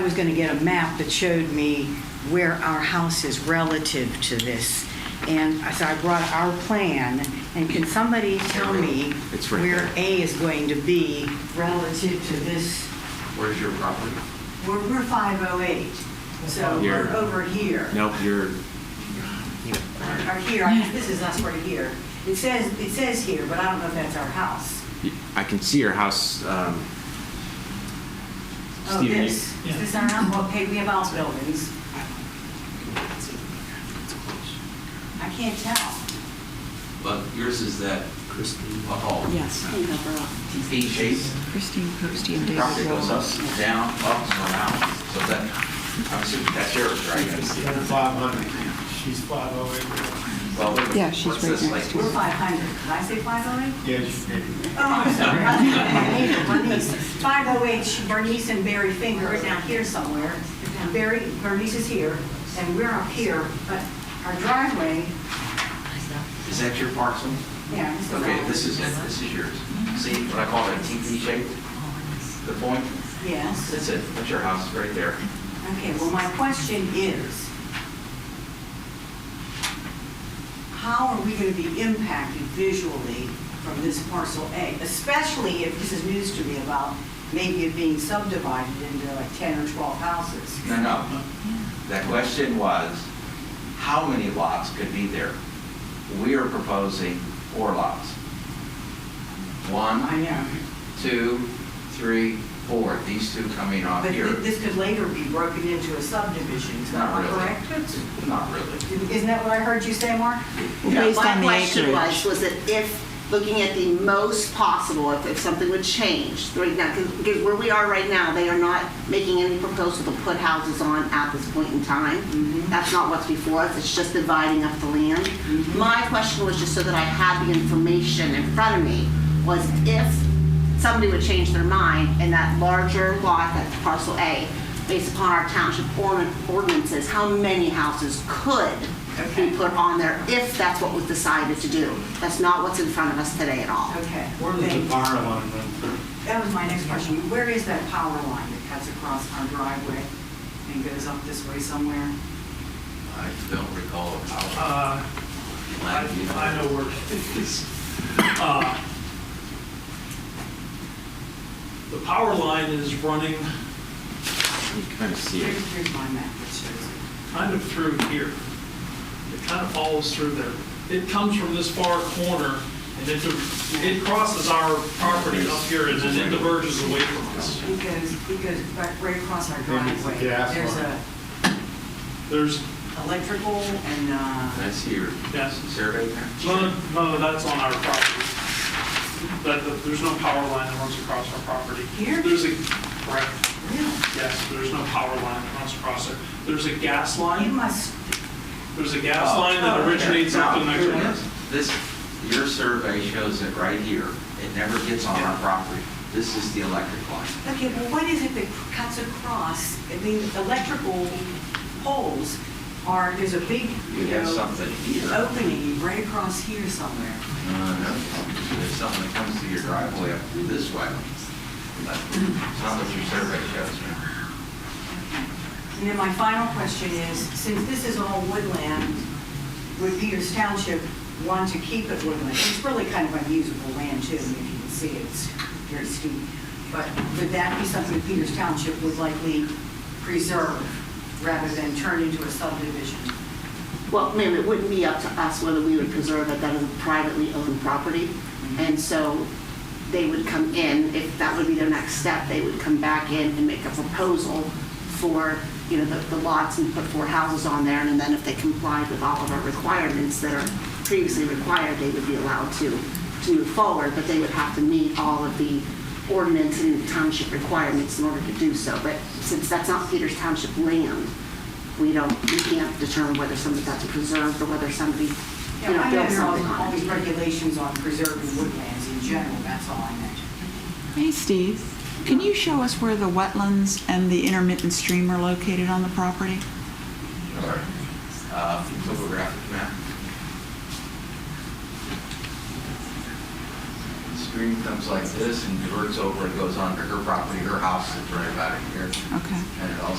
I was going to get a map that showed me where our house is relative to this. And I- so I brought our plan, and can somebody tell me It's right where there. A is going to be relative to this? Where's your property? We're, we're 508, so we're Here. over here. Nope, you're, Or here, I- this is us right here. It says, it says here, but I don't know if that's our house. I can see your house, um, Oh, Stephen, you- this, is this our house? Well, Okay, we have house buildings. I can't tell. But yours is that a hall. Yes, hang over up. Eight shapes. Christine Posty and David Property goes up, Wallace. down, up, and around. So that, I'm assuming that's yours, right? Five hundred, she's five oh eight. Well, Yeah, she's what's right this, next like, to We're it. 500. Did I say 508? Yeah, she did. Oh, I'm sorry. I hate it, Bernice. 508, Bernice and Barry Finger are down here somewhere. And Barry, Bernice is here, and we're up here, but our driveway, Is that your parcel? yeah. this is Okay, ours. this is it, this is yours. See what I call that TP shape? The point? Yes. That's it, that's your house, right there. Okay, well, my question is, how are we going to be impacted visually from this parcel A? Especially if, this is news to me about maybe it being subdivided into like 10 or 12 houses. No, no. The question was, how many lots could be there? We are proposing four lots. One, I know, two, three, four, these two coming off but here. thi- this could later be broken into a subdivision, is that Not not really. correct? Not really. Isn't that what I heard you say, Mark? Well, Yeah. Based My on the question acreage. was, was that if, looking at the most possible, if, if something would change, right now, because where we are right now, they are not making any proposal to put houses on at this point in time. Mm-hmm. That's not what's before us, it's just dividing up the land. Mm-hmm. My question was just so that I had the information in front of me, was if somebody would change their mind and that larger lot, that's parcel A, based upon our township ordin- ordinances, how many houses could be Okay. put on there if that's what was decided to do. That's not what's in front of us today at all. Okay. Where does the power line run through? That was my next question. Where is that power line that cuts across our driveway and goes up this way somewhere? I don't recall how. Uh, I, I know where it is. Uh, The power line is running you kind of see it. Here's here's my map that shows it. kind of through here. It kind of follows through there. It comes from this far corner and it, it crosses our property up here and then it diverges away from us. It goes, it goes right- right across our Maybe it's the driveway. gas There's line. a There's, electrical and, uh, That's your yes. survey there? None, of- none of that's on our property. That, that- there's no power line that runs across our property. Here? There's a, correct, yes, there's no power line that runs across there. There's a gas you Oh, line, must, there's a gas line that originates up in No, the Oh. here it is. This, your survey shows it right here. It never gets on our property. This is the electric line. okay, well, what is it that cuts across? I mean, electrical poles are, there's a big, You you have know, something here. opening right across here somewhere. No, no, There's something that comes through your driveway up this way. That's not what your survey shows, man. And then my final question is, since this is all woodland, would Peters Township want to keep it woodland? It's really kind of unusable land too, if you can see it, it's very steep. But would that be something Peters Township would likely preserve rather than turn into a subdivision? Well, ma'am, it wouldn't be up to us whether we would preserve it, that is a privately owned property. And so they would come in, if that would be their next step, they would come back in and make a proposal for, you know, the the lots and put four houses on there. And then if they complied with all of our requirements that are previously required, they would be allowed to, to move forward. But they would have to meet all of the ordinance and township requirements in order to do so. But since that's not Peters Township land, we don't, we can't determine whether somebody got to preserve or whether somebody, you know, I know built there something are all on these it. regulations on preserving woodlands in general, that's all I meant. Hey, Steve, can you show us where the wetlands and the intermittent stream are located on the property? Or, uh, topographic map. It's stream comes like this and diverts over and goes onto her property, her house is right about here. Okay. And it also